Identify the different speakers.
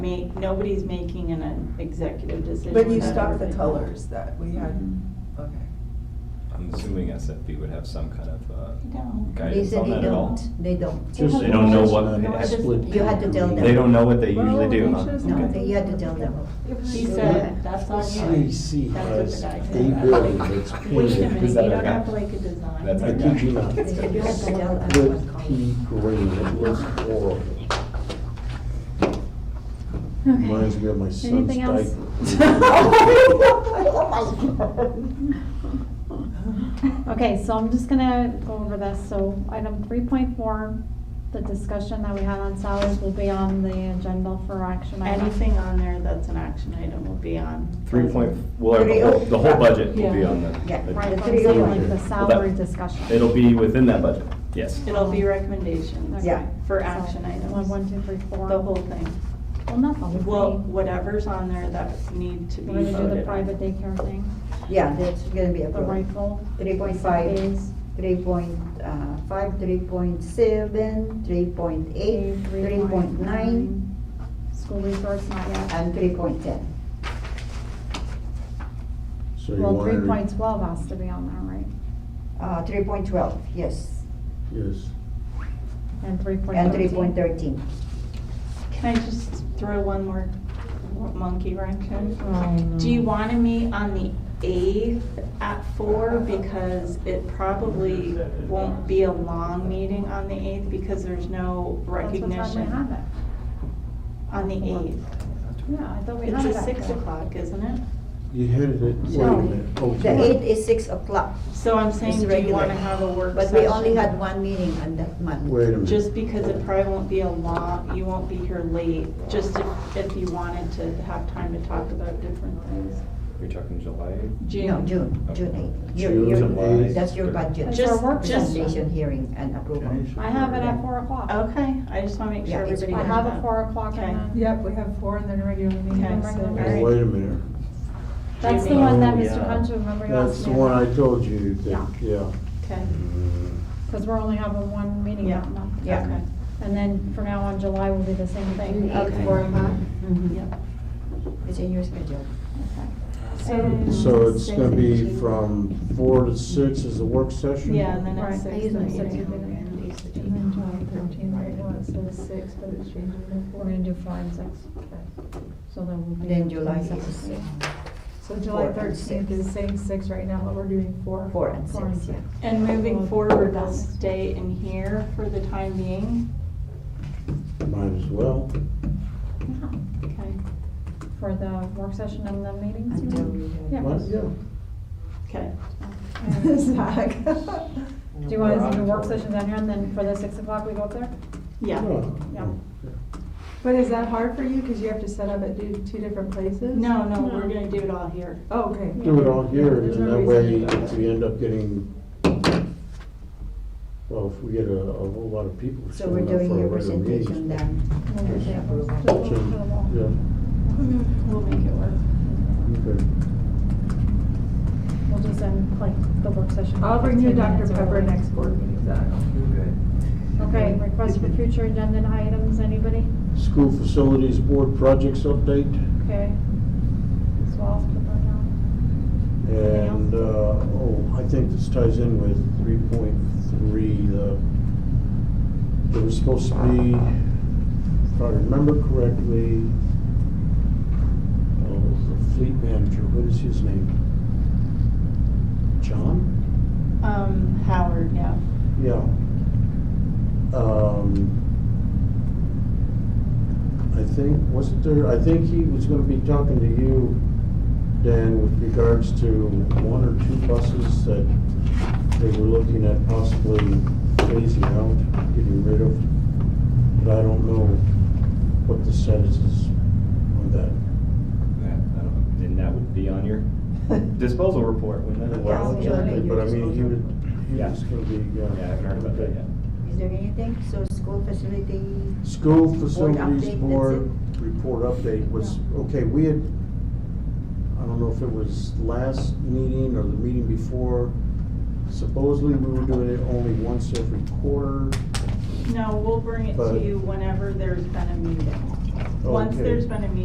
Speaker 1: make, nobody's making an- an executive decision.
Speaker 2: But you
Speaker 1: on
Speaker 2: stopped the
Speaker 1: everything. Mm-hmm.
Speaker 2: colors that we had, okay.
Speaker 3: I'm assuming SFP would have some kind of uh,
Speaker 1: They don't.
Speaker 4: They
Speaker 3: guidance
Speaker 4: said
Speaker 3: on
Speaker 4: they
Speaker 3: that at all.
Speaker 4: don't, they don't.
Speaker 1: Just-
Speaker 3: They don't know what,
Speaker 1: No, it's just-
Speaker 4: You had to tell them.
Speaker 3: they don't know what they usually do, huh?
Speaker 2: Well, it's
Speaker 4: No,
Speaker 3: Okay.
Speaker 4: they, you had to tell them.
Speaker 1: She
Speaker 4: Yeah.
Speaker 1: said, that's on you.
Speaker 5: CAC
Speaker 1: That's what
Speaker 5: has
Speaker 1: the guy
Speaker 5: a
Speaker 1: said.
Speaker 5: building that's
Speaker 1: Wait a minute,
Speaker 5: painted.
Speaker 1: you
Speaker 3: Is that
Speaker 1: don't
Speaker 3: okay?
Speaker 1: have like a design.
Speaker 3: That's
Speaker 5: I
Speaker 3: okay.
Speaker 5: kid you not.
Speaker 4: They said you had to tell them.
Speaker 5: Good
Speaker 4: what color.
Speaker 5: pea green, it was horrible. Reminds me of my son's
Speaker 6: Anything else?
Speaker 5: diaper.
Speaker 6: Okay, so I'm just gonna go over this, so item three point four, the discussion that we had on salaries will be on the agenda for action item.
Speaker 1: Anything on there that's an action item will be on.
Speaker 3: Three point, well, the whole, the whole budget will be on
Speaker 4: Yeah.
Speaker 3: the,
Speaker 6: Right,
Speaker 4: The
Speaker 6: I'm
Speaker 4: three
Speaker 6: saying
Speaker 4: oh
Speaker 6: like the
Speaker 5: one.
Speaker 6: salary
Speaker 3: Well, that-
Speaker 6: discussion.
Speaker 3: it'll be within that budget, yes.
Speaker 1: It'll be recommendations.
Speaker 6: Okay.
Speaker 4: Yeah.
Speaker 1: For
Speaker 6: So,
Speaker 1: action
Speaker 6: One,
Speaker 1: items,
Speaker 6: one, two, three, four.
Speaker 1: the whole thing.
Speaker 6: Well, not the whole
Speaker 1: Well,
Speaker 6: thing.
Speaker 1: whatever's on there that need to be
Speaker 6: We're gonna do the
Speaker 1: voted
Speaker 6: private
Speaker 1: on.
Speaker 6: daycare thing,
Speaker 4: Yeah, that's gonna be
Speaker 6: the
Speaker 4: approved.
Speaker 6: rifle.
Speaker 4: Three point five,
Speaker 6: days,
Speaker 4: three point uh, five, three point seven, three point eight,
Speaker 6: day,
Speaker 4: three point nine,
Speaker 6: School resource, not yet.
Speaker 4: and three point ten.
Speaker 5: So you
Speaker 6: Well, three
Speaker 5: wanted,
Speaker 6: point twelve has to be on there, right?
Speaker 4: Uh, three point twelve, yes,
Speaker 5: yes,
Speaker 6: And three point
Speaker 4: and
Speaker 6: thirteen.
Speaker 4: three point thirteen.
Speaker 1: Can I just throw one more monkey wrench in?
Speaker 6: Oh, no.
Speaker 1: Do you want to meet on the eighth at four? Because it probably won't be a long meeting on the eighth because there's no
Speaker 6: That's what
Speaker 1: recognition
Speaker 6: time we
Speaker 1: on the eighth.
Speaker 6: have it. Yeah, I thought we
Speaker 1: It's
Speaker 6: had it
Speaker 1: at
Speaker 6: at
Speaker 1: six
Speaker 6: four.
Speaker 1: o'clock, isn't it?
Speaker 5: you had it, at- wait a
Speaker 4: No,
Speaker 5: minute. Oh,
Speaker 4: The
Speaker 5: sorry.
Speaker 4: eight is six o'clock,
Speaker 1: So I'm saying,
Speaker 4: It's
Speaker 1: do you
Speaker 4: regular.
Speaker 1: want to have a work
Speaker 4: but
Speaker 1: session?
Speaker 4: we only had one meeting on that month.
Speaker 5: Wait a minute. Oh,
Speaker 1: Just because it probably won't be a lot, you won't be here late, just if- if you wanted to have time to talk about different things.
Speaker 3: You're talking July?
Speaker 4: No, June, June eight. Your-
Speaker 5: June,
Speaker 4: your-
Speaker 5: July.
Speaker 4: That's your budget.
Speaker 6: It's
Speaker 1: Just-
Speaker 6: our work
Speaker 1: just-
Speaker 6: session.
Speaker 4: Presentation, hearing, and approval.
Speaker 6: I have it at four o'clock.
Speaker 1: Okay, I just want to make sure
Speaker 4: Yeah, it's
Speaker 1: everybody
Speaker 6: I
Speaker 1: knows
Speaker 6: have
Speaker 1: that.
Speaker 6: it four o'clock and then,
Speaker 7: Yep, we have four and then a regular meeting.
Speaker 1: Okay,
Speaker 7: so-
Speaker 6: so-
Speaker 5: Oh, Wait a minute.
Speaker 6: that's the one that
Speaker 5: Oh,
Speaker 6: Mr.
Speaker 5: yeah.
Speaker 6: Hunter, remember you
Speaker 5: That's
Speaker 6: asked
Speaker 5: the
Speaker 6: me
Speaker 5: one
Speaker 6: about?
Speaker 5: I told you that, yeah.
Speaker 1: Okay,
Speaker 6: Cause we're only having one meeting
Speaker 1: Yeah.
Speaker 6: that month.
Speaker 4: Yeah.
Speaker 1: okay,
Speaker 6: And then from now on, July will be the same thing.
Speaker 1: Okay.
Speaker 6: Four o'clock.
Speaker 7: Mm-hmm.
Speaker 4: Mhm.
Speaker 1: yep.
Speaker 4: It's in your schedule.
Speaker 1: So-
Speaker 5: So it's gonna be from four to six is the work session?
Speaker 1: Yeah, and then
Speaker 6: Right, I
Speaker 1: at six.
Speaker 6: use my
Speaker 1: the
Speaker 6: six
Speaker 1: meeting.
Speaker 7: And then July thirteen, right now it says six, but it's changing to
Speaker 6: We're
Speaker 7: four.
Speaker 6: gonna do five and six. So then we'll be.
Speaker 4: Then July is
Speaker 6: six.
Speaker 7: So
Speaker 4: Four
Speaker 7: July
Speaker 4: and
Speaker 7: thirteenth
Speaker 4: six.
Speaker 7: is same six right now, but we're doing four.
Speaker 4: four and
Speaker 6: Four and
Speaker 4: six, yeah.
Speaker 1: And moving forward, I'll stay in here for the time being,
Speaker 5: Might as well.
Speaker 1: okay?
Speaker 6: For the work session and the meetings. you
Speaker 4: Until
Speaker 6: mean?
Speaker 4: we have.
Speaker 6: Yeah.
Speaker 5: Might- Yeah.
Speaker 1: Okay,
Speaker 7: Zach.
Speaker 6: Do you want us to do work sessions down here and then for the six o'clock we go up there?
Speaker 1: yeah.
Speaker 5: Yeah.
Speaker 6: Yeah.
Speaker 7: But is that hard for you? Cause you have to set up at two, two different places?
Speaker 1: No, no, we're gonna do it all here.
Speaker 7: Oh, Okay.
Speaker 5: Do it all here, and
Speaker 7: There's
Speaker 5: then
Speaker 7: no
Speaker 5: that way,
Speaker 7: reason to do
Speaker 5: if we end up getting, well, if we get a, a whole lot of people
Speaker 4: So we're
Speaker 5: showing up
Speaker 4: doing
Speaker 5: for a
Speaker 4: your
Speaker 5: regular
Speaker 4: presentation
Speaker 5: meeting.
Speaker 4: then.
Speaker 5: Just yeah,
Speaker 1: We'll make it work.
Speaker 5: okay.
Speaker 6: We'll just end like the work session.
Speaker 7: I'll bring you
Speaker 6: 15
Speaker 7: Dr.
Speaker 6: minutes
Speaker 7: Pepper
Speaker 6: early.
Speaker 7: next board meeting, Zach.
Speaker 6: Okay, request for future agenda items, anybody?
Speaker 5: School Facilities Board Projects Update,
Speaker 6: Okay. So I'll put that down.
Speaker 5: and, uh, oh, I think this ties in with three point three, the, there was supposed to be, if I remember correctly, oh, the fleet manager, what is his name? John?
Speaker 1: Um, Howard, yeah.
Speaker 5: Yeah. Um, I think, wasn't there, I think he was gonna be talking to you, Dan, with regards to one or two buses that they were looking at possibly phasing out, getting rid of. But I don't know what the status is on that.
Speaker 3: That- I don't know. And that would be on your disposal report, wouldn't it?
Speaker 4: Yeah.
Speaker 5: Well, exactly, But I mean, he would, he
Speaker 3: Yeah.
Speaker 5: was gonna be, yeah.
Speaker 3: Yeah, I haven't heard about that yet.
Speaker 4: Is there anything? So school facility,
Speaker 5: School facilities
Speaker 4: update,
Speaker 5: board report update was, okay, we had, I don't know if it was last meeting or the meeting before, supposedly we were doing it only once every quarter.
Speaker 1: No, we'll bring it to
Speaker 5: But-
Speaker 1: you whenever there's been a meeting. Once
Speaker 5: Okay.
Speaker 1: there's been a meeting